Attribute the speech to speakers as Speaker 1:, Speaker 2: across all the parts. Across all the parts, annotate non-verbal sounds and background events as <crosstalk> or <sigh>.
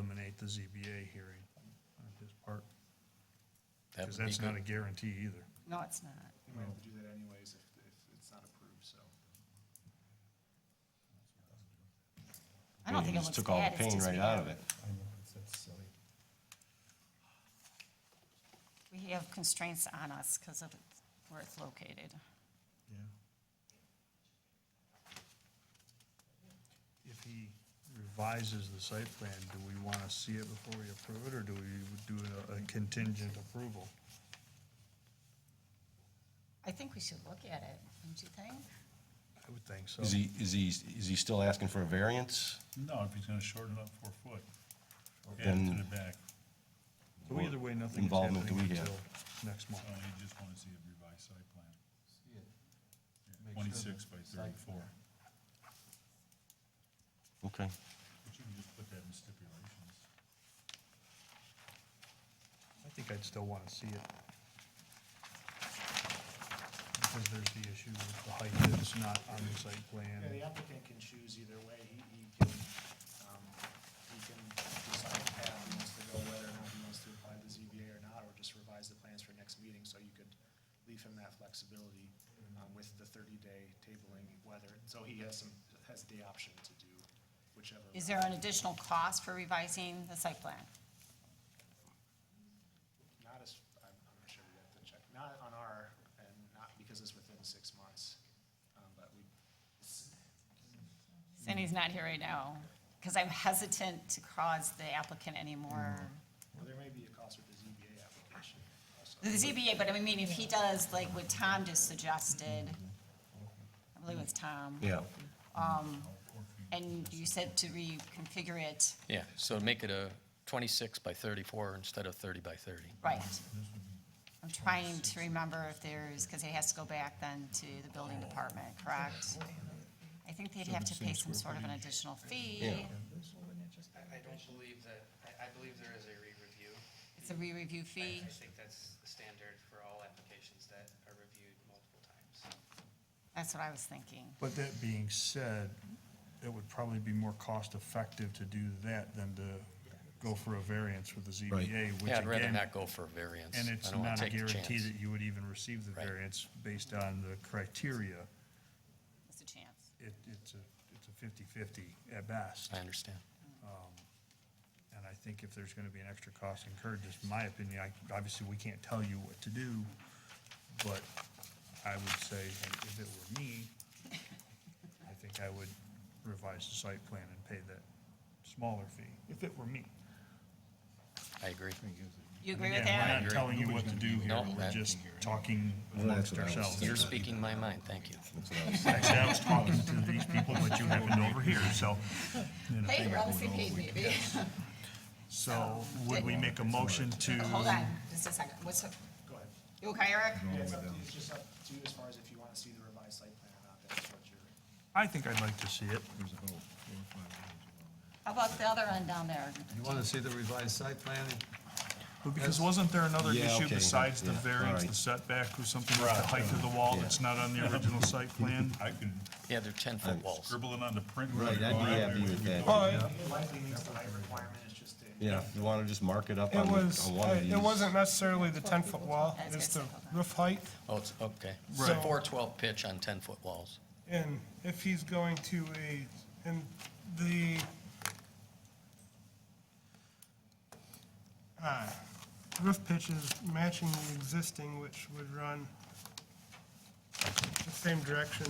Speaker 1: the ZBA hearing on his part,
Speaker 2: That
Speaker 1: because
Speaker 2: would be
Speaker 1: that's not a
Speaker 2: good.
Speaker 1: guarantee either.
Speaker 3: No, it's not.
Speaker 4: We might have to do that anyways if, if it's not approved, so.
Speaker 3: I don't think
Speaker 2: You
Speaker 3: it
Speaker 2: just
Speaker 3: looks
Speaker 2: took all the
Speaker 3: bad. It's
Speaker 2: pain
Speaker 3: just we
Speaker 2: right out of
Speaker 3: have-
Speaker 2: it.
Speaker 5: I know, it's, that's silly.
Speaker 3: We have constraints on us because of where it's located.
Speaker 1: Yeah. If he revises the site plan, do we want to see it before we approve it, or do we do a- a contingent approval?
Speaker 3: I think we should look at it, don't you think?
Speaker 1: I would think so.
Speaker 2: Is he, is he, is he still asking for a variance?
Speaker 6: No, if he's gonna shorten up four foot, add it to the
Speaker 2: Then,
Speaker 6: back,
Speaker 1: So either way, nothing is
Speaker 2: Involvement
Speaker 1: happening
Speaker 2: do we have?
Speaker 1: until next month.
Speaker 6: so uh, you just wanna see a revised site plan,
Speaker 4: See it.
Speaker 6: Yeah, twenty-six by thirty-four.
Speaker 2: okay.
Speaker 6: But you can just put that in stipulations.
Speaker 1: I think I'd still want to see it. Because there's the issue with the height that's not on the site
Speaker 4: Yeah, the
Speaker 1: plan.
Speaker 4: applicant can choose either way. He, he can, um, he can decide the path he wants to go, whether or not he wants to apply to ZBA or not, or just revise the plans for next meeting, so you could leave him that flexibility, um, with the thirty-day tabling, whether, so he has some, has the option to do whichever.
Speaker 3: Is there an additional cost for revising the site plan?
Speaker 4: Not as, I'm, I'm not sure, we have to check, not on our, and not because it's within six months, um, but we, it's-
Speaker 3: Sandy's not here right now, because I'm hesitant to cause the applicant any more.
Speaker 4: well, there may be a cost with the ZBA application also.
Speaker 3: The ZBA, but I mean, if he does, like what Tom just suggested, I believe it's Tom.
Speaker 2: Yeah,
Speaker 3: And you said to reconfigure it,
Speaker 7: Yeah, so make it a 26 by 34 instead of 30 by 30.
Speaker 3: right. I'm trying to remember if there's, because it has to go back then to the building department, correct? I think they'd have to pay some sort of an additional fee.
Speaker 2: Yeah.
Speaker 8: I, I don't believe that, I, I believe there is a re-review.
Speaker 3: It's a re-review
Speaker 8: I,
Speaker 3: fee.
Speaker 8: I think that's standard for all applications that are reviewed multiple times.
Speaker 3: That's what I was thinking.
Speaker 1: But that being said, it would probably be more cost-effective to do that than to go for a variance with the ZBA, which
Speaker 7: Yeah, I'd rather
Speaker 1: again,
Speaker 7: not go for a variance.
Speaker 1: and it's
Speaker 7: I don't wanna
Speaker 1: not a
Speaker 7: take the
Speaker 1: guarantee
Speaker 7: chance.
Speaker 1: that you would even receive the
Speaker 7: Right.
Speaker 1: variance based on the criteria.
Speaker 3: It's a chance.
Speaker 1: It, it's a, it's a fifty-fifty at best.
Speaker 7: I understand.
Speaker 1: And I think if there's gonna be an extra cost incurred, just my opinion, I, obviously, we can't tell you what to do, but I would say, and if it were me, I think I would revise the site plan and pay that smaller fee, if it were me.
Speaker 7: I agree.
Speaker 3: You agree with
Speaker 1: Again,
Speaker 3: that?
Speaker 1: we're not telling you what to do here,
Speaker 7: No,
Speaker 1: we're
Speaker 7: that-
Speaker 1: just talking
Speaker 2: Well,
Speaker 1: amongst
Speaker 2: that's what I was
Speaker 1: ourselves.
Speaker 2: thinking.
Speaker 7: You're speaking my mind, thank you.
Speaker 1: Actually, I was talking to these people, but you happened over here, so,
Speaker 3: Hey, we're on the same page, maybe.
Speaker 1: so would we make a motion to?
Speaker 3: <laughs> Hold on, just a second. What's, up?
Speaker 4: Go ahead.
Speaker 3: you okay, Eric?
Speaker 4: Yeah, it's up to you, it's just up to you as far as if you want to see the revised site plan or not, that's what you're.
Speaker 1: I think I'd like to see it.
Speaker 5: There's a whole four or five pages long.
Speaker 3: How about the other end down there?
Speaker 5: You want to see the revised site plan?
Speaker 9: But because wasn't there another
Speaker 2: Yeah,
Speaker 9: issue
Speaker 2: okay,
Speaker 9: besides the
Speaker 2: yeah,
Speaker 9: variance,
Speaker 2: alright.
Speaker 9: the setback or something with the height of the wall that's not on the original site plan?
Speaker 6: I can
Speaker 7: Yeah, they're 10-foot walls.
Speaker 6: scribble it on the print.
Speaker 2: Right, I'd be happy with that.
Speaker 4: It likely means the height requirement is just a.
Speaker 2: Yeah, you want to just mark it up
Speaker 9: It
Speaker 2: on the-
Speaker 9: was,
Speaker 2: on one of these?
Speaker 9: it wasn't necessarily the ten-foot wall,
Speaker 3: That's
Speaker 9: it's the
Speaker 3: good.
Speaker 9: roof height.
Speaker 7: Oh, it's, okay. It's a
Speaker 9: Right.
Speaker 7: 412 pitch on 10-foot walls.
Speaker 9: And if he's going to a, and the, uh, roof pitch is matching the existing, which would run the same direction.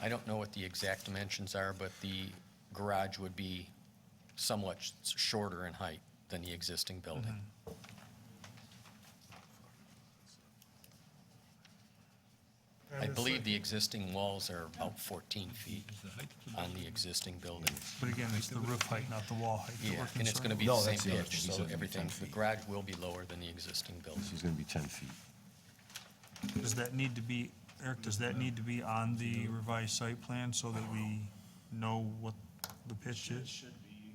Speaker 7: I don't know what the exact dimensions are, but the garage would be somewhat sh- shorter in height than the existing building.
Speaker 1: Mm-hmm.
Speaker 7: I believe the existing walls are about 14 feet on the existing building.
Speaker 1: But again, it's the roof height, not the wall height. that we're
Speaker 7: Yeah, and it's
Speaker 1: concerned
Speaker 7: gonna be the
Speaker 2: No,
Speaker 7: same
Speaker 2: that's the other thing.
Speaker 7: pitch,
Speaker 2: He said
Speaker 7: so
Speaker 2: it'd be
Speaker 7: everything,
Speaker 2: 10
Speaker 7: the
Speaker 2: feet.
Speaker 7: garage will be lower than the existing building.
Speaker 2: He's going to be 10 feet.
Speaker 1: Does that need to be, Eric, does that need to be on the revised site plan so that we know what the pitch
Speaker 4: It
Speaker 1: is?
Speaker 4: should be,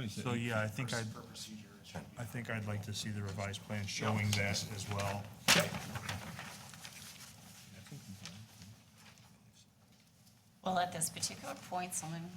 Speaker 4: um,
Speaker 1: So, yeah, I think I'd,
Speaker 4: for procedure, it should be.
Speaker 1: I think I'd like to see the revised plan showing that as well.
Speaker 3: Well, at this particular point, someone